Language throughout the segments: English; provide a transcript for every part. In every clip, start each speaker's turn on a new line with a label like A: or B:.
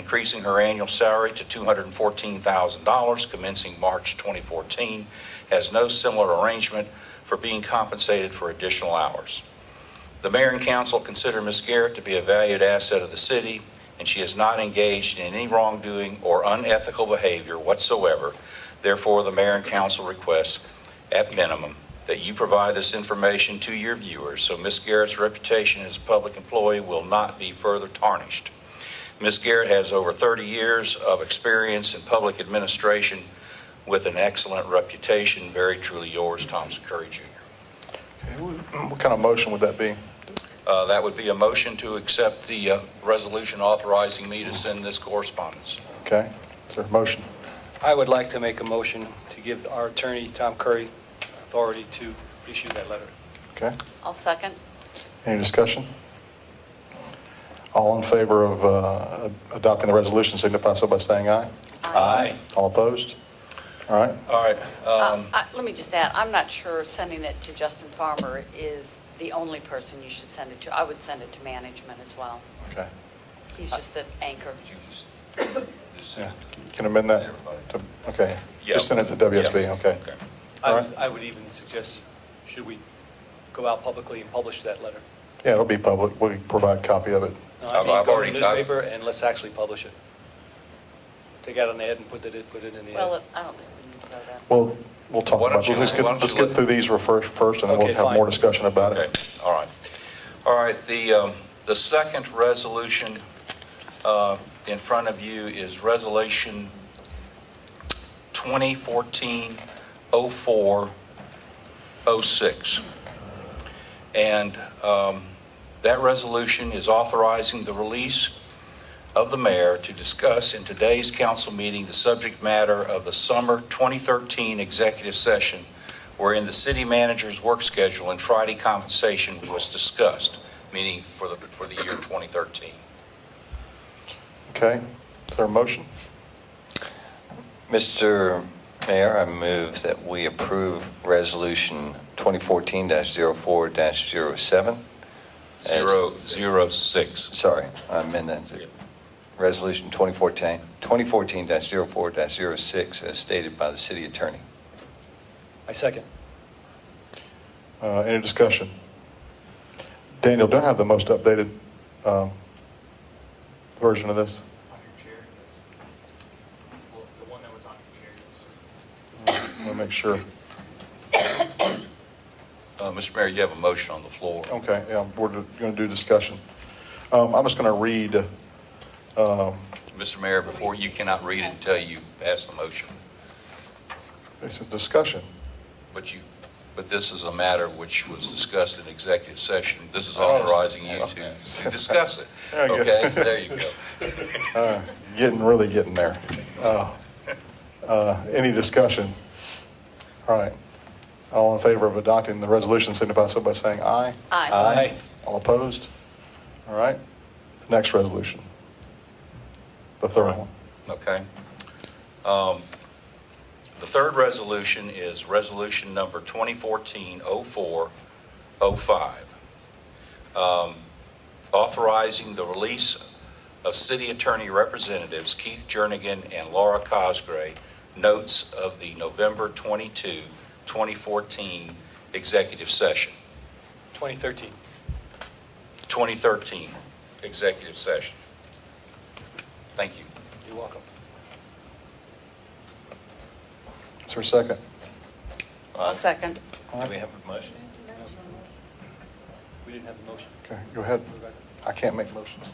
A: increasing her annual salary to $214,000 commencing March 2014, has no similar arrangement for being compensated for additional hours. The mayor and council consider Ms. Garrett to be a valued asset of the city, and she is not engaged in any wrongdoing or unethical behavior whatsoever. Therefore, the mayor and council request, at minimum, that you provide this information to your viewers so Ms. Garrett's reputation as a public employee will not be further tarnished. Ms. Garrett has over 30 years of experience in public administration with an excellent reputation. Very truly yours, Thompson Curry Jr.
B: Okay, What what kind of motion would that be?
A: Uh, That would be a motion to accept the uh, resolution authorizing me to send this correspondence.
B: Okay, is there a motion?
C: I would like to make a motion to give our attorney, Tom Curry, authority to issue that letter.
B: Okay,
D: I'll second.
B: any discussion? All in favor of uh, adopting the resolution, signify so by saying aye.
A: Aye.
B: All opposed? All right,
A: All right.
D: Uh,
A: um,
D: I- Let me just add, I'm not sure sending it to Justin Farmer is the only person you should send it to. I would send it to management as well.
B: okay.
D: He's just the anchor.
B: Yeah. You Can amend that? to- Okay,
A: yeah.
B: just send it to WSB,
A: Yeah.
B: okay.
C: I
B: All
C: would-
B: right.
C: I would even suggest, should we go out publicly and publish that letter?
B: Yeah, it'll be public, we provide a copy of it.
C: No,
A: I've-
C: I think
A: I've
C: go to
A: already-
C: the newspaper and let's actually publish it. Take out an ad and put it, put it in the ad.
D: Well, I don't think we need to go that.
B: We'll, we'll talk
A: Why don't
B: about, it.
A: you-
B: let's get,
A: why don't
B: let's
A: you
B: get
A: let-
B: through these real first, first, and then we'll
C: Okay,
B: have more
C: fine.
B: discussion about
A: Okay,
B: it.
A: all right. All right, the, um, the second resolution uh, in front of you is Resolution 2014-04-06. oh And um, that resolution is authorizing the release of the mayor to discuss in today's council meeting the subject matter of the summer 2013 executive session wherein the city manager's work schedule and Friday compensation was discussed, meaning for the, for the year 2013.
B: Okay, is there a motion?
E: Mr. Mayor, I move that we approve Resolution 2014-04-07. As-
A: Zero, zero six.
E: Sorry, I amend that. to-
A: Yeah.
E: Resolution 2014 2014-04-06 as stated by the city attorney.
C: I second.
B: Uh, Any discussion? Daniel, do I have the most updated um, version of this?
F: On your chair, yes. Well, the one that was on your chair, yes.
B: Let me make sure.
A: Uh, Mr. Mayor, you have a motion on the floor.
B: Okay, yeah, we're going to do discussion. Um, I'm just going to read, um,
A: Mr. Mayor, before, you cannot read it until you pass the motion.
B: it's a discussion.
A: But you, but this is a matter which was discussed in executive session. This
B: Oh.
A: is authorizing you to to discuss it.
B: There you go.
A: Okay, there you go.
B: Uh, Getting, really getting there. Uh, uh, Any discussion? All right. All in favor of adopting the resolution, signify so by saying aye.
D: Aye.
B: All opposed? All right. The Next resolution. The third one.
A: Okay. Um, The third resolution is Resolution Number 2014-04-05, um, authorizing the release of city attorney representatives Keith Jernigan and Laura Cosgray, notes of the November 22, 2014 executive session,
C: 2013.
A: 2013 executive session. Thank you.
C: You're welcome.
B: Is there a second?
D: I'll second.
E: Do we have a motion?
C: We didn't have a motion.
B: Okay, go ahead. I can't make motions.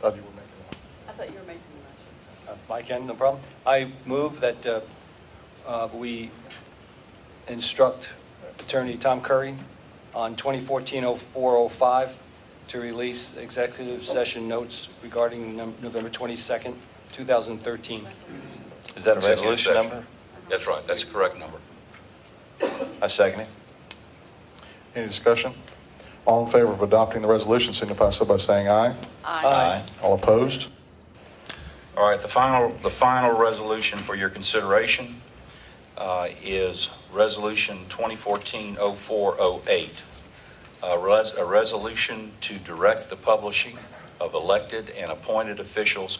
B: Thought you were making one.
D: I thought you were making the
C: Uh, Mike, N, no problem. I move that uh, uh, we instruct Attorney Tom Curry on 2014-0405 to release executive session notes regarding num- November 22nd, 2013.
E: Is that a
A: Executive
E: resolution
A: session.
E: number?
A: That's right, that's the correct number.
E: I second it.
B: Any discussion? All in favor of adopting the resolution, signify so by saying aye.
C: Aye.
B: All opposed?
A: All right, the final, the final resolution for your consideration uh, is Resolution 2014-0408, a res- a resolution to direct the publishing of elected and appointed officials'